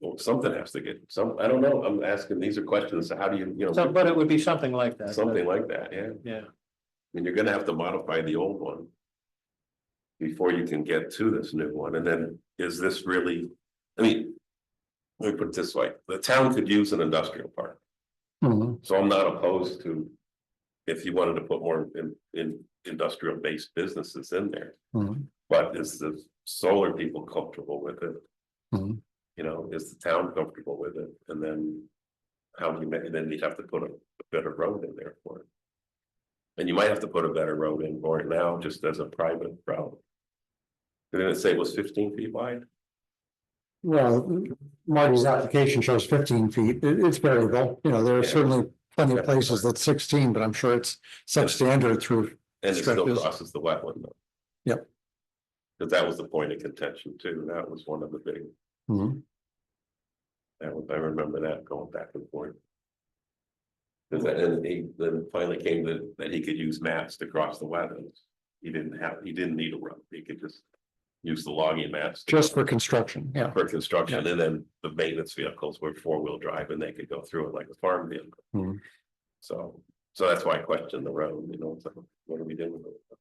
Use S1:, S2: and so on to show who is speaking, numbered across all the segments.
S1: Well, something has to get, some, I don't know, I'm asking, these are questions, how do you, you
S2: So,
S1: know,
S2: but it would be something like that.
S1: something like that, yeah,
S2: Yeah,
S1: and you're gonna have to modify the old one. Before you can get to this new one, and then is this really, I mean. Let me put it this way, the town could use an industrial park. So I'm not opposed to. If you wanted to put more in, in industrial based businesses in there, but is the solar people comfortable with it?
S3: Mm-hmm.
S2: Mhm.
S1: You know, is the town comfortable with it? And then. How do you make, and then you'd have to put a a better road in there for it. And you might have to put a better road in for it now, just as a private road. Didn't it say it was fifteen feet wide?
S3: Well, Marty's application shows fifteen feet. It- it's variable, you know, there are certainly plenty of places that's sixteen, but I'm sure it's substandard through.
S1: And it still
S3: Stretches.
S1: crosses the wetland though.
S3: Yep.
S1: Cause that was the point of contention too. That was one of the big,
S3: Mhm.
S1: that was, I remember that going back and forth.
S3: Hmm.
S1: Cause then- and he then finally came to, that he could use maps to cross the wetlands. He didn't have, he didn't need a road. He could just use the logging maps. to-
S3: Just for construction, yeah.
S1: For construction and then the maintenance vehicles were four-wheel drive and they could go through it like a farm vehicle.
S3: Hmm.
S1: So, so that's why I questioned the road, you know, so what are we doing? with it?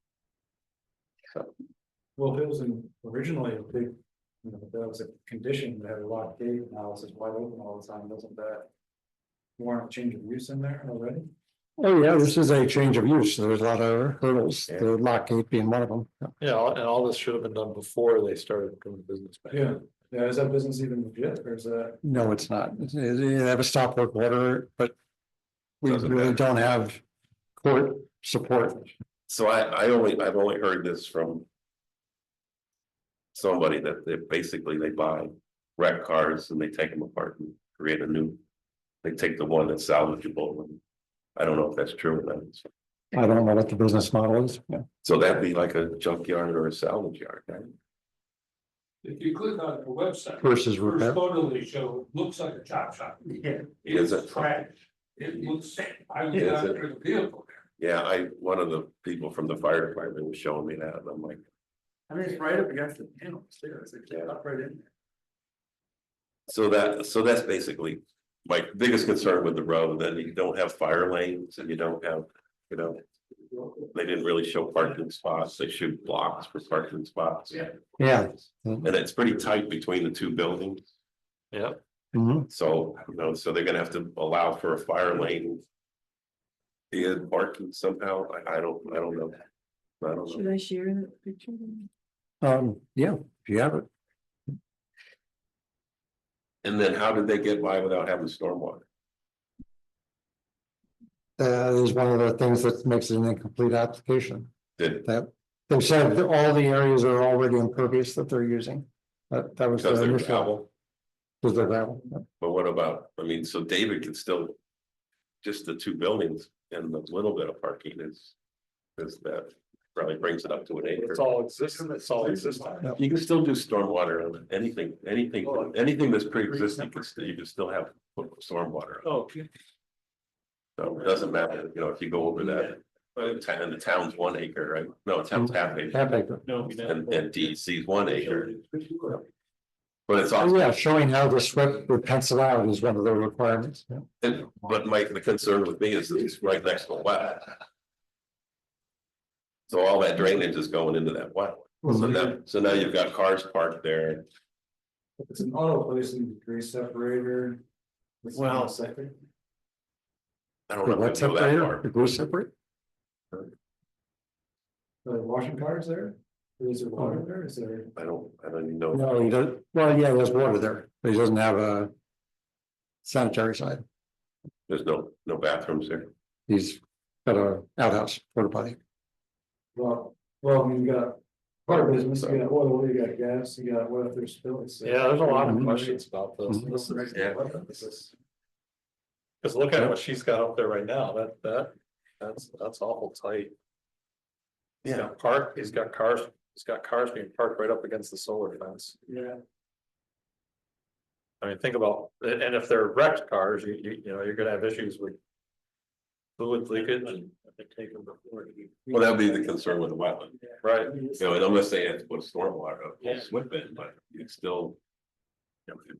S4: Well, it was an- originally a big, you know, that was a condition that had a lot of gate analysis wide open all the time, doesn't that? Warrant change of use in there already?
S3: Oh, yeah, this is a change of use. There's a lot of hurdles, the lock gate being one of them.
S2: yeah, all- and all this should have been done before they started doing business. back then.
S4: Yeah, is that business even legit, or is that,
S3: No, it's not. It's- it- They have a stop work order, but we
S1: Doesn't
S3: really
S1: matter.
S3: don't have court support.
S1: So I, I only, I've only heard this from. Somebody that they basically they buy wrecked cars and they take them apart and create a new. They take the one that's salvageable and I don't know if that's true or not.
S3: I don't know what the business model is. Yeah.
S1: So that'd be like a junkyard or a salvage yard, right?
S5: If you click on the website,
S3: Versus repair.
S5: first photo they show, looks like a chop shop. Yeah.
S1: Is it?
S5: It's trash. It looks, I was
S1: Is
S5: out
S1: it?
S5: there in the vehicle.
S1: Yeah, I, one of the people from the fire department was showing me that and I'm like,
S4: I mean, it's right up against the panel, stairs, it's
S1: Yeah.
S4: up right in there.
S1: so that, so that's basically. My biggest concern with the road, that you don't have fire lanes and you don't have, you know. They didn't really show parking spots, they showed blocks for parking spots.
S5: Yeah.
S3: Yeah.
S1: And it's pretty tight between the two buildings,
S3: Mhm.
S1: so, you know, so they're gonna have to allow for a fire lane. In parking somehow, I, I don't, I don't know. I don't know,
S6: Should I share that picture?
S3: Um, yeah, if you have it.
S1: and then how did they get by without having stormwater?
S3: Uh, That is one of the things that makes it an incomplete application,
S1: Did,
S3: that they said that all the areas are already impervious that they're using. That, that was. the
S1: because they're
S3: initial-
S1: gravel?
S3: Was the gravel, yeah.
S1: But what about, I mean, so David can still. Just the two buildings and the little bit of parking is. Is that probably brings it up to an acre.
S2: It's all existing, it's all existing.
S1: You can still do stormwater on anything, anything,
S2: Oh,
S1: anything that's pre-existing, you can still- you can still have stormwater. on it.
S2: Oh, okay.
S1: So it doesn't matter, you know, if you go over that. But the town, the town's one acre, right? No, the town's half acre
S3: half acre.
S2: No, we
S1: and, and DEC's one acre. But it's also.
S3: Oh, yeah, showing how the SWIP would pencil out is one of the requirements. yeah.
S1: And, but Mike, the concern with me is that it's right next to a wetland. So all that drainage is going into that wetland. So now, so now you've got cars parked there.
S4: It's an auto placing degree separator. It's not
S2: Well-
S4: septic.
S1: I don't
S3: The
S1: know.
S3: what
S1: if I know that
S3: separator,
S1: part.
S3: the glue separate,
S4: Are there washing cars there? Is there water there, is there?
S1: I don't, I don't even know.
S3: no, he does, well, yeah, there's water there, but he doesn't have a. Sanitary side,
S1: There's no, no bathrooms there.
S3: he's got a outhouse, porta potty.
S4: Well, well, you got car business, you got oil, you got gas, you got what if there's spills?
S2: Yeah, there's a lot of
S3: Mhm.
S2: questions about this.
S3: Mhm.
S2: This is-
S1: Yeah.
S2: Cause look at what she's got up there right now, that, that, that's, that's awful tight. He's got park, he's got cars, he's got cars being parked right up against the solar fence.
S4: Yeah,
S2: I mean, think about, and and if they're wrecked cars, you, you, you know, you're gonna have issues with. Fluid leakage and.
S1: Well, that'd be the concern with the wetland.
S2: Right,
S1: You know, and I'm not saying it's with stormwater,
S2: Yeah.
S1: it's with it, but it's still. you know,